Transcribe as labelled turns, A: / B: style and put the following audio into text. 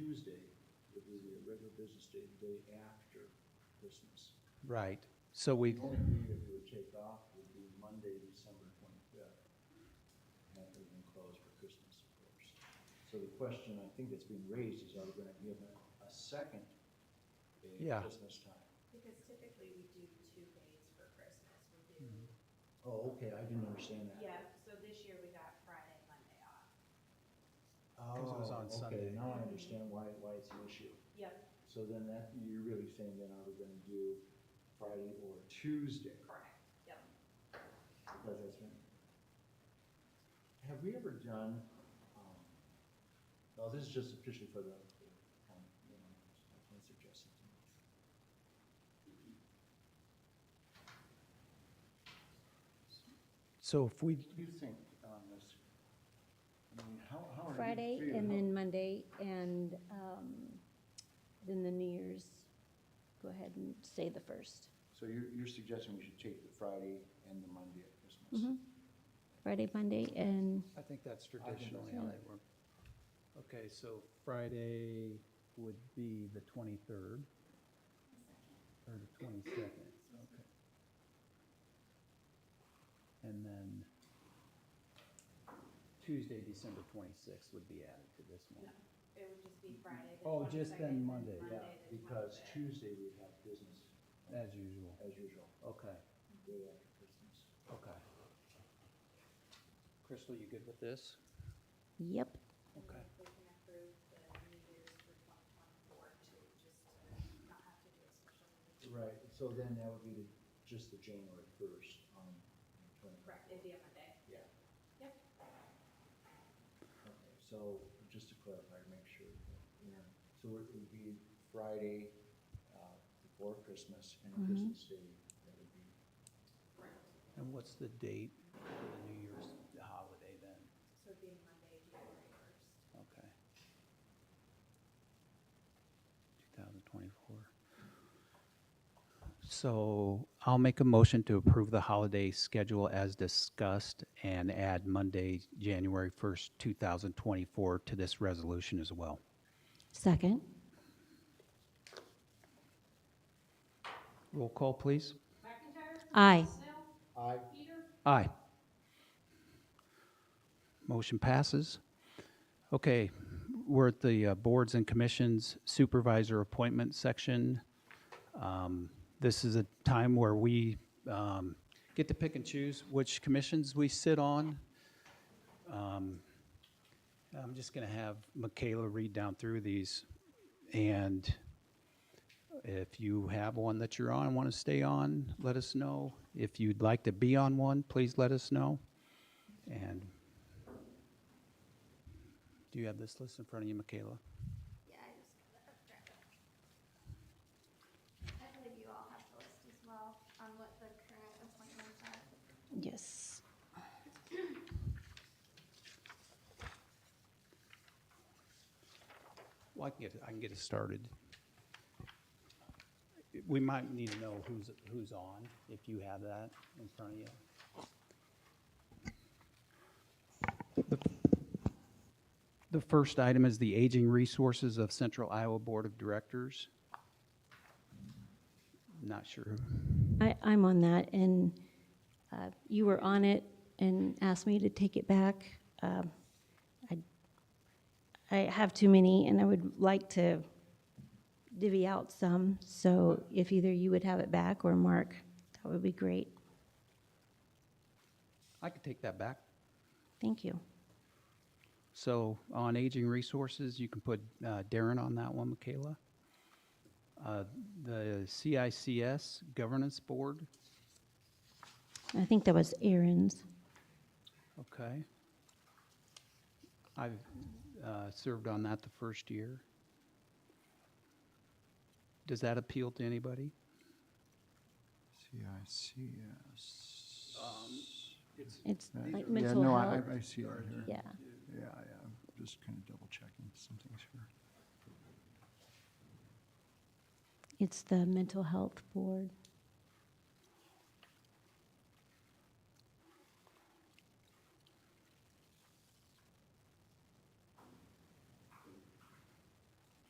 A: Tuesday, it will be a regular business day, the day after Christmas.
B: Right. So we,
A: The only day that we would take off would be Monday, December twenty-fifth. Have everything closed for Christmas, of course. So the question I think that's being raised is are we gonna give it a second day at
B: Yeah.
A: Christmas time?
C: Because typically we do two days for Christmas. We do,
B: Mm-hmm.
A: Oh, okay, I didn't understand that.
C: yeah, so this year we got Friday, Monday off.
B: Because it was
A: Oh,
B: on
A: okay,
B: Sunday.
A: Now I understand why, why it's an issue.
C: Yep,
A: So then that, you're really saying then are we gonna do Friday or Tuesday?
C: correct, yep.
A: Because that's been. Have we ever done, um, no, this is just officially for the, the, um, you know, I can suggest it to you.
B: so if we,
A: What do you think on this? I mean, how, how are you
D: Friday
A: feeling?
D: and then Monday and um, then the New Year's, go ahead and say the first.
A: So you're, you're suggesting we should take the Friday and the Monday at Christmas?
D: Mhm. Friday, Monday, and
B: I think that's
A: that's
B: traditionally how
A: fine.
B: they work. Okay, so Friday would be the 23rd or the 22nd, okay. And then Tuesday, December 26th would be added to this one.
C: No, It would just be Friday. the
B: Oh, just
C: 22nd,
B: then
C: and
B: Monday, yeah,
A: Yeah,
C: the
A: Uh, because
C: 25th.
A: Tuesday we have business
B: As usual.
A: as usual,
B: Okay,
A: day after Christmas.
B: okay. Crystal, you good with this?
D: yep,
C: And
B: Okay.
C: if We can approve the New Year's for twenty twenty-four too, just to not have to do a special. meeting.
A: Right, so then that would be the, just the January first on twenty.
C: Correct, it'd be a Monday.
A: Yeah.
C: Yep.
A: Okay, so just to clarify, make sure, yeah, so it would be Friday, uh, before Christmas and
D: Mhm.
A: Christmas Day, that would be.
C: Correct.
B: And what's the date for the New Year's holiday then?
C: So it'd be Monday, January first.
B: Okay. 2024. So I'll make a motion to approve the holiday schedule as discussed and add Monday, January 1st, 2024 to this resolution as well.
D: second.
B: Roll call, please.
C: McIntyre?
D: Aye.
C: Snell?
A: I,
C: Peter?
B: Aye. Motion passes. Okay, we're at the uh, Boards and Commissions Supervisor Appointment section. Um, This is a time where we um, get to pick and choose which commissions we sit on. Um, I'm just going to have Michaela read down through these, and if you have one that you're on, and want to stay on, let us know. If you'd like to be on one, please let us know. And do you have this list in front of you, Michaela?
E: Yeah, I just got that draft up. I believe you all have the list as well on what the current appointments are.
D: Yes.
B: Well, I can get, I can get us started. We might need to know who's, who's on, if you have that in front of you. The- The first item is the Aging Resources of Central Iowa Board of Directors. Not sure.
D: I, I'm on that, and uh, you were on it and asked me to take it back. Um, I I have too many, and I would like to divvy out some, so if either you would have it back or Mark, that would be great.
B: I could take that back.
D: Thank you.
B: So on aging resources, you can put uh, Darren on that one, Michaela. Uh, The CICS Governance Board,
D: I think that was Aaron's.
B: okay. I've uh, served on that the first year. Does that appeal to anybody?
F: CICS.
D: It's
F: Yeah,
D: like
F: Yeah,
D: mental
F: no, I,
D: health.
F: I- I see it here.
D: Yeah,
F: Yeah, yeah, I'm just kind of double checking some things here.
D: it's the mental health board.